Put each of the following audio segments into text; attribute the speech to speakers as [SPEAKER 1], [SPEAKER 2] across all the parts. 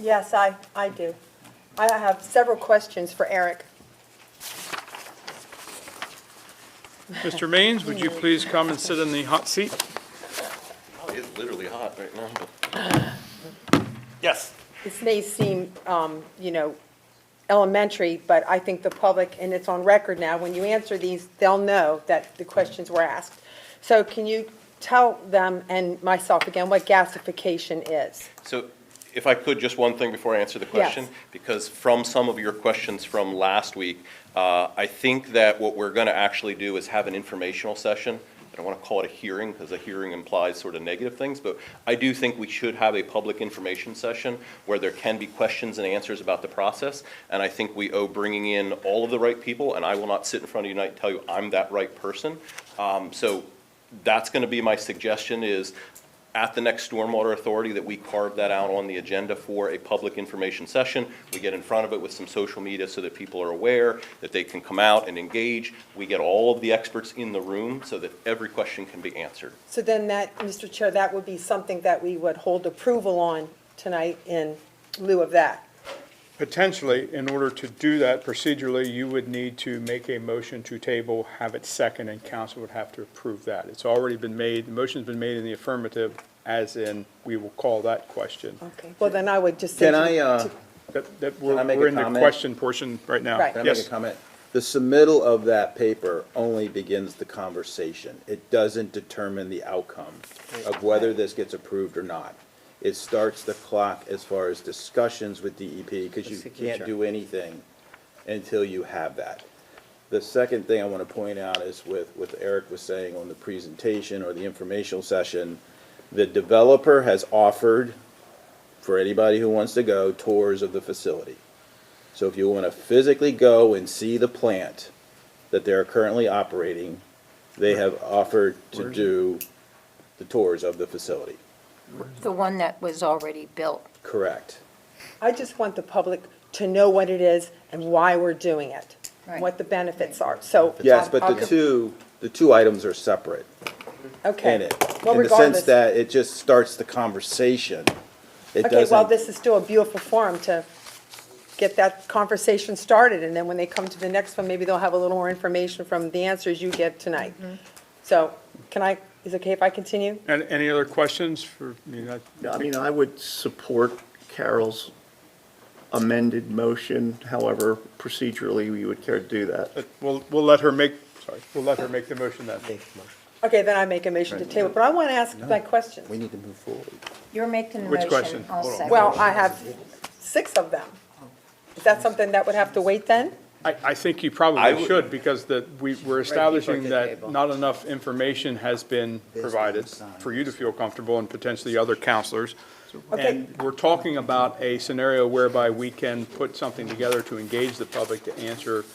[SPEAKER 1] Yes, I, I do. I have several questions for Eric.
[SPEAKER 2] Mr. Maines, would you please come and sit in the hot seat?
[SPEAKER 3] Oh, It's literally hot right now. Yes.
[SPEAKER 1] This may seem, um, you know, elementary, but I think the public, and it's on record now, when you answer these, they'll know that the questions were asked. So can you tell them and myself again what gasification is?
[SPEAKER 3] So if I could, just one thing before I answer the question?
[SPEAKER 1] Yes.
[SPEAKER 3] Because from some of your questions from last week, uh, I think that what we're going to actually do is have an informational session. I don't want to call it a hearing because a hearing implies sort of negative things, but I do think we should have a public information session where there can be questions and answers about the process. And I think we owe bringing in all of the right people, and I will not sit in front of you tonight and tell you I'm that right person. Um, So that's going to be my suggestion is at the next Stormwater Authority that we carve that out on the agenda for a public information session. We get in front of it with some social media so that people are aware, that they can come out and engage. We get all of the experts in the room so that every question can be answered.
[SPEAKER 1] So then that, Mr. Chair, that would be something that we would hold approval on tonight in lieu of that.
[SPEAKER 2] Potentially, in order to do that procedurally, you would need to make a motion to table, have it second, and council would have to approve that. It's already been made, the motion's been made in the affirmative, as in, we will call that question.
[SPEAKER 1] Okay. Well, then I would just. say
[SPEAKER 4] Can
[SPEAKER 1] to-
[SPEAKER 4] I, uh,
[SPEAKER 1] to-
[SPEAKER 2] That, that, we're
[SPEAKER 4] Can I make a
[SPEAKER 2] we're in the
[SPEAKER 4] comment?
[SPEAKER 2] question portion right now.
[SPEAKER 1] Right.
[SPEAKER 4] can I make a
[SPEAKER 2] Yes,
[SPEAKER 4] comment? The submittal of that paper only begins the conversation. It doesn't determine the outcome of whether this gets approved or not. It starts the clock as far as discussions with DEP, because you can't do anything until you have that. The second thing I want to point out is with, with Eric was saying on the presentation or the informational session, the developer has offered, for anybody who wants to go, tours of the facility. So if you want to physically go and see the plant that they're currently operating, they have offered to do the tours of the facility.
[SPEAKER 5] The one that was already built.
[SPEAKER 4] Correct.
[SPEAKER 1] I just want the public to know what it is and why we're doing it,
[SPEAKER 5] Right.
[SPEAKER 1] what the benefits are, so.
[SPEAKER 4] Yes, but
[SPEAKER 1] I'll-
[SPEAKER 4] the two, the two items are separate
[SPEAKER 1] Okay.
[SPEAKER 4] in it.
[SPEAKER 1] Well,
[SPEAKER 4] In the sense
[SPEAKER 1] regardless-
[SPEAKER 4] that it just starts the conversation. It
[SPEAKER 1] Okay, well,
[SPEAKER 4] doesn't-
[SPEAKER 1] this is still a beautiful forum to get that conversation started, and then when they come to the next one, maybe they'll have a little more information from the answers you get tonight. So, can I, is it okay if I continue?
[SPEAKER 2] and any other questions for, I mean, I-
[SPEAKER 6] Yeah, I mean, I would support Carol's amended motion, however procedurally we would care to do that.
[SPEAKER 2] we'll, we'll let her make, sorry, we'll let her make the motion then.
[SPEAKER 1] Okay, then I make a motion to table, but I want to ask my
[SPEAKER 4] We
[SPEAKER 1] question.
[SPEAKER 4] need to move forward.
[SPEAKER 5] You're making the
[SPEAKER 2] Which
[SPEAKER 5] motion.
[SPEAKER 2] question?
[SPEAKER 5] I'll second.
[SPEAKER 1] Well, I have six of them. Is that something that would have to wait then?
[SPEAKER 2] I, I think you
[SPEAKER 3] I
[SPEAKER 2] probably
[SPEAKER 3] would-
[SPEAKER 2] should, because the, we, we're establishing that not enough information has been provided for you to feel comfortable and potentially other counselors.
[SPEAKER 1] Okay.
[SPEAKER 2] And we're talking about a scenario whereby we can put something together to engage the public to answer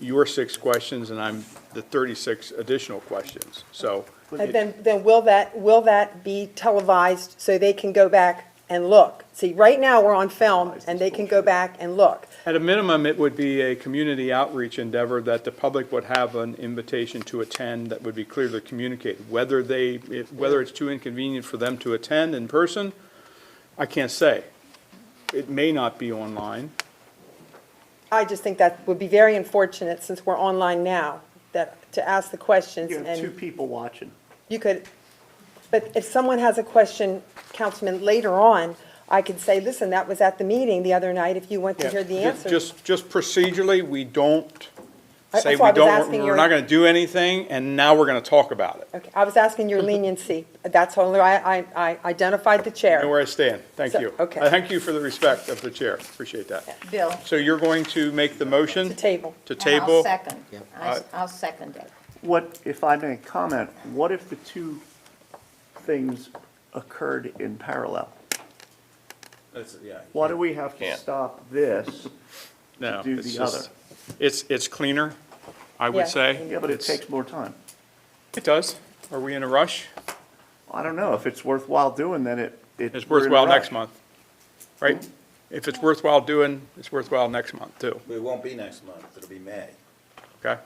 [SPEAKER 2] your six questions, and I'm the thirty-six additional questions, so.
[SPEAKER 1] And then, then will that, will that be televised so they can go back and look? See, right now, we're on film, and they can go back and look.
[SPEAKER 2] At a minimum, it would be a community outreach endeavor that the public would have an invitation to attend that would be clearly communicated. Whether they, if- whether it's too inconvenient for them to attend in person, I can't say. It may not be online.
[SPEAKER 1] I just think that would be very unfortunate, since we're online now, that, to ask the questions,
[SPEAKER 6] You have two
[SPEAKER 1] and
[SPEAKER 6] people watching.
[SPEAKER 1] you could, but if someone has a question, Councilman, later on, I could say, listen, that was at the meeting the other night, if you want to hear the
[SPEAKER 2] Ju-
[SPEAKER 1] answer.
[SPEAKER 2] Just, just procedurally, we don't
[SPEAKER 1] I-
[SPEAKER 2] say
[SPEAKER 1] that's why I
[SPEAKER 2] we
[SPEAKER 1] was
[SPEAKER 2] don't,
[SPEAKER 1] asking
[SPEAKER 2] we're
[SPEAKER 1] your-
[SPEAKER 2] not gonna do anything, and now we're gonna talk about it.
[SPEAKER 1] Okay, I was asking your leniency, that's all, I, I, I identified the chair.
[SPEAKER 2] I Know where I stand. Thank
[SPEAKER 1] So-
[SPEAKER 2] you.
[SPEAKER 1] okay.
[SPEAKER 2] I Thank you for the respect of the chair. Appreciate that.
[SPEAKER 5] Bill.
[SPEAKER 2] So you're going to make the motion?
[SPEAKER 1] To table.
[SPEAKER 2] To
[SPEAKER 5] and I'll
[SPEAKER 2] table?
[SPEAKER 5] second. I-
[SPEAKER 2] Alright.
[SPEAKER 5] I'll second it.
[SPEAKER 6] What, if I may comment, what if the two things occurred in parallel? Why do we have to
[SPEAKER 3] Can't.
[SPEAKER 6] stop this?
[SPEAKER 2] No,
[SPEAKER 6] do
[SPEAKER 2] it's
[SPEAKER 6] the
[SPEAKER 2] just, it's, it's cleaner, I
[SPEAKER 1] Yeah.
[SPEAKER 2] would say.
[SPEAKER 6] Yeah, but it
[SPEAKER 2] It's-
[SPEAKER 6] takes more time.
[SPEAKER 2] It does. Are we in a rush?
[SPEAKER 6] I don't know, if it's worthwhile doing, then it, it.
[SPEAKER 2] It's
[SPEAKER 6] we're in a
[SPEAKER 2] worthwhile
[SPEAKER 6] rush.
[SPEAKER 2] next month, right? If it's worthwhile doing, it's worthwhile next month too,
[SPEAKER 4] It won't be next month, it'll be May.
[SPEAKER 2] okay?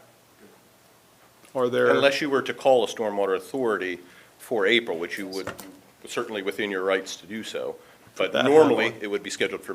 [SPEAKER 2] Are there,
[SPEAKER 3] Unless you were to call a stormwater authority for April, which you would certainly within your rights to do so. But normally, it would be scheduled for